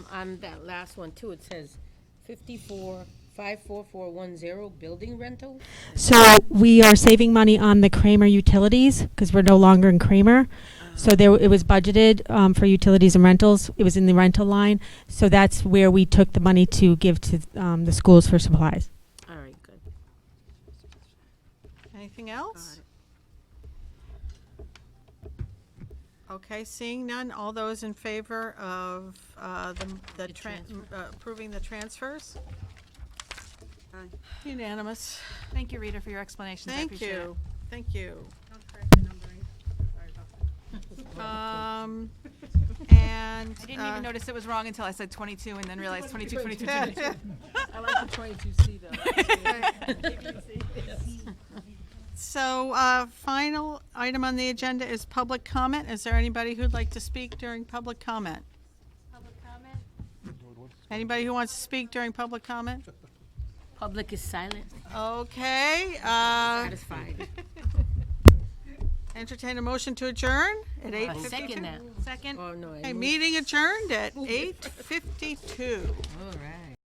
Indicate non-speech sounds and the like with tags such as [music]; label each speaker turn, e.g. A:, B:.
A: On that last one too, it says fifty-four, five-four-four-one-zero, building rental?
B: So we are saving money on the Kramer utilities because we're no longer in Kramer. So there, it was budgeted um, for utilities and rentals. It was in the rental line. So that's where we took the money to give to um, the schools for supplies.
A: All right, good.
C: Anything else? Okay, seeing none, all those in favor of uh, the- the,
A: The
C: tran-
A: transfer.
C: uh, approving the transfers?
D: Aye.
C: Unanimous.
E: Thank you, Rita, for your explanations. I
C: Thank
E: appreciate it.
C: you, thank you. Um, And. uh,
E: I didn't even notice it was wrong until I said 22 and then realized 22, 22, 22.
C: [laughs] notice.
F: I like the twenty-two C though.
C: So, uh, final item on the agenda is public comment. Is there anybody who'd like to speak during public comment? Anybody who wants to speak during public comment?
A: Public is silent,
C: Okay,
A: [laughs]
C: uh,
A: satisfied.
C: entertain a motion to adjourn at eight
A: I second
C: fifty-two.
A: that.
C: Second.
A: Oh, no. I
C: Okay,
A: moved.
C: meeting adjourned at eight fifty-two.
A: All right.